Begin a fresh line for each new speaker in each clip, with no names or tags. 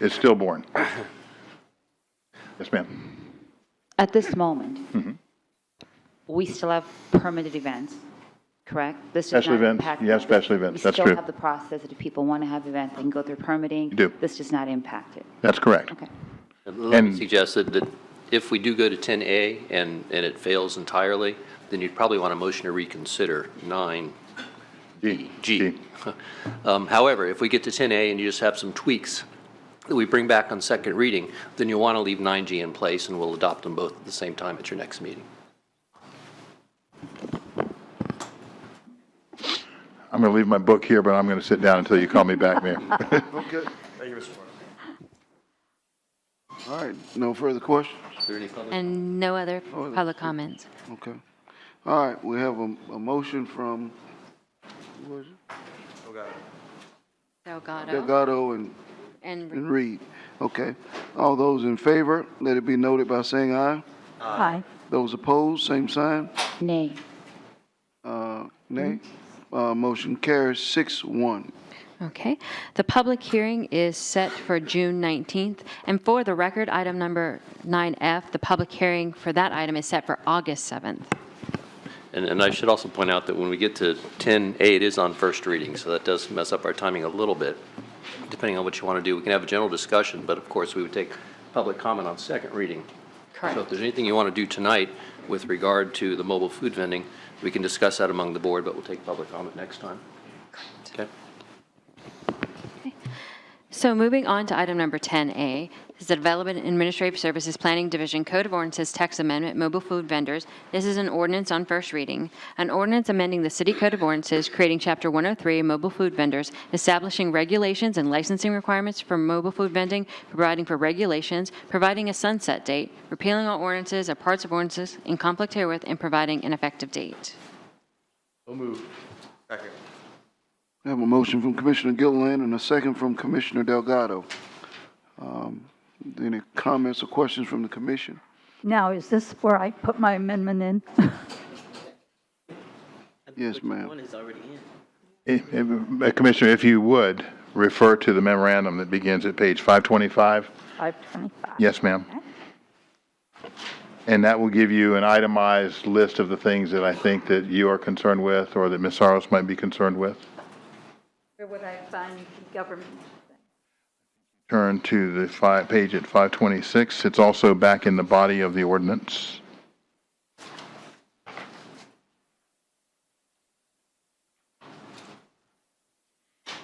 is stillborn. Yes, ma'am.
At this moment,
Mm-hmm.
we still have permitted events, correct? This does
Special
not
events,
impact
yeah,
that.
special events, that's
We
true.
still have the process that if people want to have events, they can go through permitting.
You do.
This does not impact it.
That's correct.
Okay.
Let me
And-
suggest that, that if we do go to 10A and, and it fails entirely, then you'd probably want a motion to reconsider 9.
G.
G. Um, However, if we get to 10A and you just have some tweaks that we bring back on second reading, then you'll want to leave 9G in place, and we'll adopt them both at the same time at your next meeting.
I'm going to leave my book here, but I'm going to sit down until you call me back, Mayor.
Okay. Thank you, Mr. All right, no further questions?
Is there any public-
And no other
other-
public comments.
Okay. All right, we have a, a motion from who was it?
Delgado
Delgado and,
and
and Reed. Okay. All those in favor, let it be noted by saying aye.
Aye.
Those opposed, same sign.
Nay.
Uh, nay. Uh, motion carries six one.
Okay. The public hearing is set for June 19th. And for the record, item number 9F, the public hearing for that item is set for August 7th.
And, and I should also point out that when we get to 10A, it is on first reading, so that does mess up our timing a little bit, depending on what you want to do. We can have a general discussion, but of course, we would take public comment on second reading. So if
Correct.
there's anything you want to do tonight with regard to the mobile food vending, we can discuss that among the board, but we'll take public comment next time. Okay?
So moving on to item number 10A, this is the Development and Administrative Services Planning Division Code of Ordinances Text Amendment, Mobile Food Vendors. This is an ordinance on first reading. An ordinance amending the City Code of Ordinances, creating Chapter 103, Mobile Food Vendors, establishing regulations and licensing requirements for mobile food vending, providing for regulations, providing a sunset date, repealing all ordinances or parts of ordinances in conflict herewith, and providing an effective date.
We have a motion from Commissioner Gilliland and a second from Commissioner Delgado. Um, Any comments or questions from the commission?
Now, is this where I put my amendment in?
Yes, ma'am.
One is already in.
Eh, eh, Commissioner, if you would, refer to the memorandum that begins at page 525.
525.
Yes, ma'am. And that will give you an itemized list of the things that I think that you are concerned with or that Ms. Saros might be concerned with.
Where would I find the government?
Turn to the fi- page at 526. It's also back in the body of the ordinance.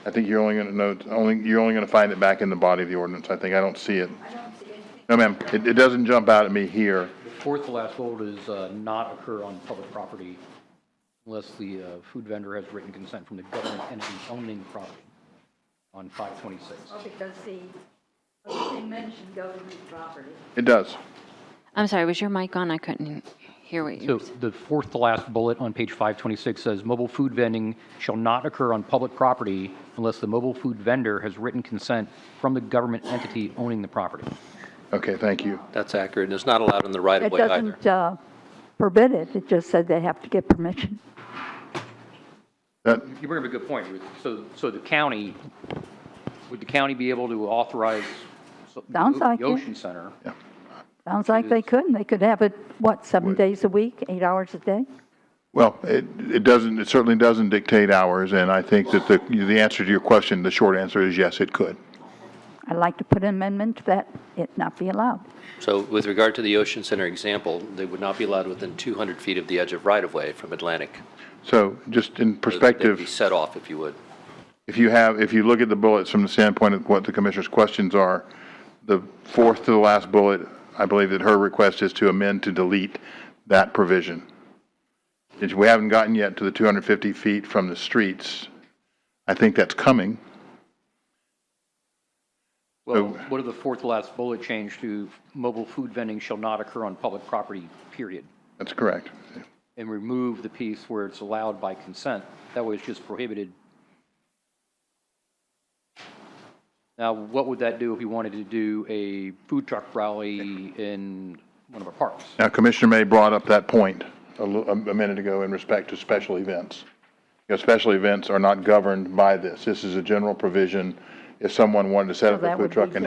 I think you're only going to note, only, you're only going to find it back in the body of the ordinance. I think, I don't see it. No, ma'am, it, it doesn't jump out at me here.
Fourth to last bullet is uh, not occur on public property unless the uh, food vendor has written consent from the government entity owning the property on 526.
Because the, they mentioned government property.
It does.
I'm sorry, was your mic on? I couldn't hear what you
So
were saying.
the fourth to last bullet on page 526 says, "Mobile food vending shall not occur on public property unless the mobile food vendor has written consent from the government entity owning the property."
Okay, thank you.
That's accurate, and it's not allowed in the
It
right-of-way either.
doesn't uh, forbid it, it just said they have to get permission.
That,
You bring up a good point, Ruth. So, so the county, would the county be able to authorize so-
Sounds like
the
it.
Ocean Center?
Sounds like they could, and they could have it, what, seven days a week, eight hours a day?
Well, it, it doesn't, it certainly doesn't dictate hours, and I think that the, the answer to your question, the short answer is yes, it could.
I'd like to put an amendment to that, it not be allowed.
So with regard to the Ocean Center example, they would not be allowed within 200 feet of the edge of right-of-way from Atlantic.
So just in
So they'd be
perspective,
Set off, if you would.
if you have, if you look at the bullets from the standpoint of what the commissioner's questions are, the fourth to the last bullet, I believe that her request is to amend to delete that provision. Since we haven't gotten yet to the 250 feet from the streets, I think that's coming.
Well,
So-
what if the fourth to last bullet change to mobile food vending shall not occur on public property, period?
That's correct.
And remove the piece where it's allowed by consent. That way it's just prohibited. Now, what would that do if you wanted to do a food truck rally in one of our parks?
Now, Commissioner May brought up that point a lo- a minute ago in respect to special events. You know, special events are not governed by this. This is a general provision if someone wanted to set up
Well,
a
that
food
would
truck
be
and